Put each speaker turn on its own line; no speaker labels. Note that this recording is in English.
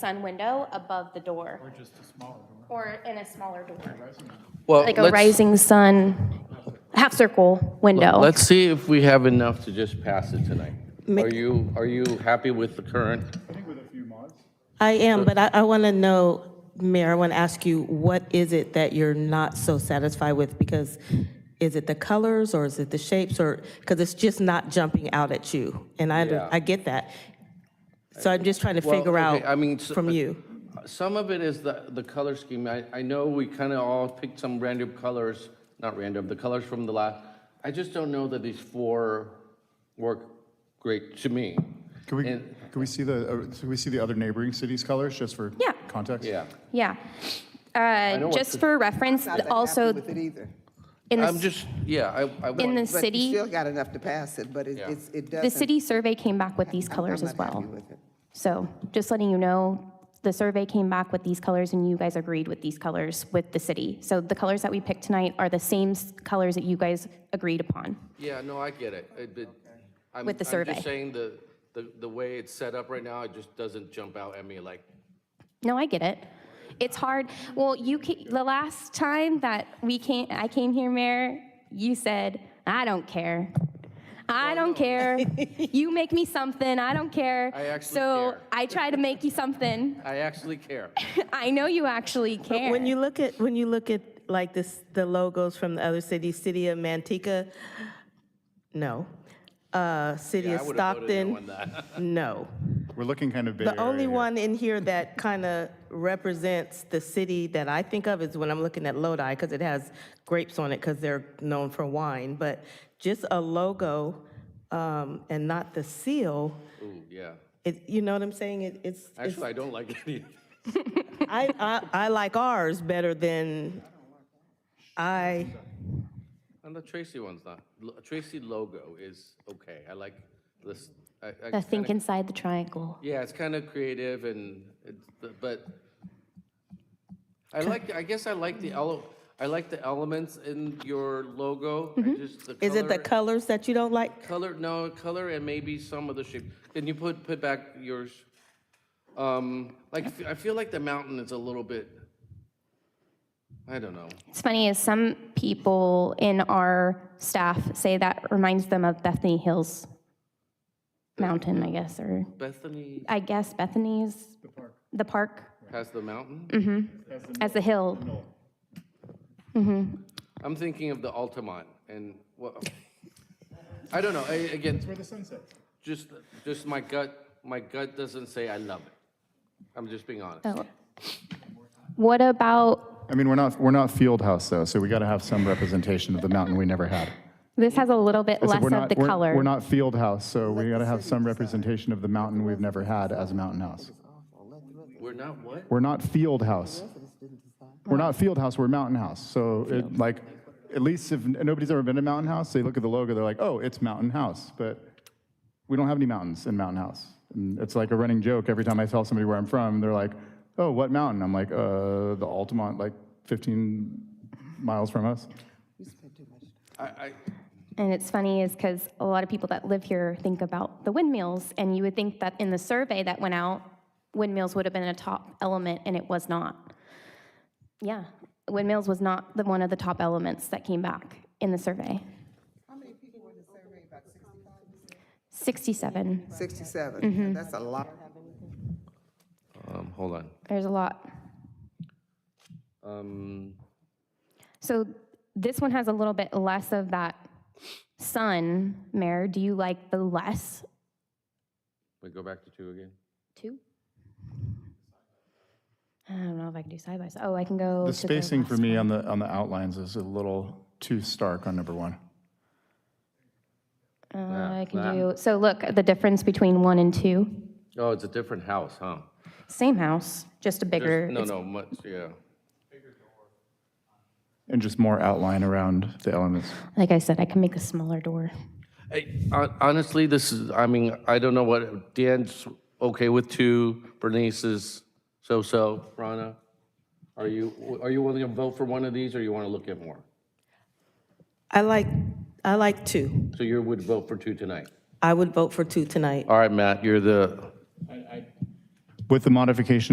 sun window above the door
Or just a smaller door.
or in a smaller door,
Well,
like a
let's-
rising sun, half circle window.
Let's see if we have enough to just pass it tonight. Are you, are you happy with the current?
I am, but I, I want to know, Mayor, I want to ask you, what is it that you're not so satisfied with? Because is it the colors or is it the shapes or, because it's just not jumping out at you? And
Yeah.
I, under- I get that. So I'm just trying to
Well,
figure
okay, I mean,
out
so-
from you.
Some of it is the, the color scheme. I, I know we kind of all picked some random colors, not random, the colors from the last. I just don't know that these four work great to me.
Can we,
And-
can we see the, uh, can we see the other neighboring cities' colors, just for
Yeah.
context?
Yeah.
Yeah.
know
Uh,
what
just
the-
for reference,
Not that happy
also
With it either.
in
I'm
the,
just, yeah, I, I.
in the
But you
city,
still got enough to pass it, but it,
Yeah.
it's- it doesn't.
the city survey came back with these
I'm-
colors
I'm
as
not happy
well.
with it.
So just letting you know, the survey came back with these colors and you guys agreed with these colors with the city. So the colors that we picked tonight are the same s- colors that you guys agreed upon.
Yeah, no, I get it. It- it- I'm-
With the
I'm
survey.
just saying the, the, the way it's set up right now, it just doesn't jump out at me like,
No, I get it. It's hard. Well, you ca- the last time that we came, I came here, Mayor, you said, "I don't care. I don't care. you make me something. I don't care."
I actually
so
care.
I try to make you something.
I actually care.
I know you actually care.
When you look at, when you look at like this, the logos from the other cities, City of Manteca, no. Uh, City
Yeah,
of
I would've voted no on
Stockton,
that.
no.
We're looking kind of Bay
The
Area
only
here.
one in here that kind of represents the city that I think of is when I'm looking at Lodi, because it has grapes on it, because they're known for wine. But just a logo um, and not the seal,
Ooh, yeah.
it, you know what I'm saying? It- It's, it's-
Actually, I don't like any of
I, I, I like ours better than, I,
And the Tracy one's not, lo- Tracy logo is okay, I like this. I- I
the
kinda-
think inside the triangle.
Yeah, it's kind of creative and, it's but I like, I guess I like the ele, I like the elements in your logo. I just the
Mm-hmm. is it the colors that you don't like?
Color, no, color and maybe some of the shape. Can you put, put back yours? Um, Like, I fe- I feel like the mountain is a little bit, I don't know.
It's funny is some people in our staff say that reminds them of Bethany Hills Mountain, I guess, or
Bethany
I guess Bethany's the park. The park
has the mountain?
Mm. as the hill.
I'm thinking of the Altamont and what, I don't know, I, again,
Where the sun sets.
just, just my gut, my gut doesn't say I love it. I'm just being honest.
Oh. What about
I mean, we're not, we're not Field House, though, so we got to have some representation of the mountain we never had.
this? Has a little bit
I said
less
we're
of
not-
the
we're-
color.
We're not Field House, so we got to have some representation of the mountain we've never had as a Mountain House.
We're not what?
We're not Field House. We're not Field House, we're Mountain House. So it, like, at least if nobody's ever been to Mountain House, they look at the logo, they're like, oh, it's Mountain House. But we don't have any mountains in Mountain House. And it's like a running joke. Every time I tell somebody where I'm from, they're like, oh, what mountain? I'm like, uh, the Altamont, like 15 miles from us.
I, I,
and it's funny is because a lot of people that live here think about the windmills, and you would think that in the survey that went out, windmills would have been a top element, and it was not. Yeah, windmills was not the one of the top elements that came back in the survey. Sixty-seven. Mm-hmm.
67, that's a lot.
um, hold on.
There's a lot.
Um,
So this one has a little bit less of that sun, Mayor. Do you like the less
we go back to two again?
two? I don't know if I can do side by side. Oh, I can go.
The
to
spacing for
last
me
one.
on the, on the outlines is a little too stark on number one.
Uh, I
that.
can do, so look, the difference between one and two,
Oh, it's a different house, huh?
same house, just a bigger.
There's- No,
it's-
no, much, yeah.
And just more outline around the elements.
Like I said, I can make a smaller door.
Hey, hon- Honestly, this is, I mean, I don't know what, Dan's okay with two, Bernice is so-so, Rana? Are you, are you willing to vote for one of these, or you want to look at more?
I like, I like two.
So you would vote for two tonight?
I would vote for two tonight.
All right, Matt, you're the
With the modification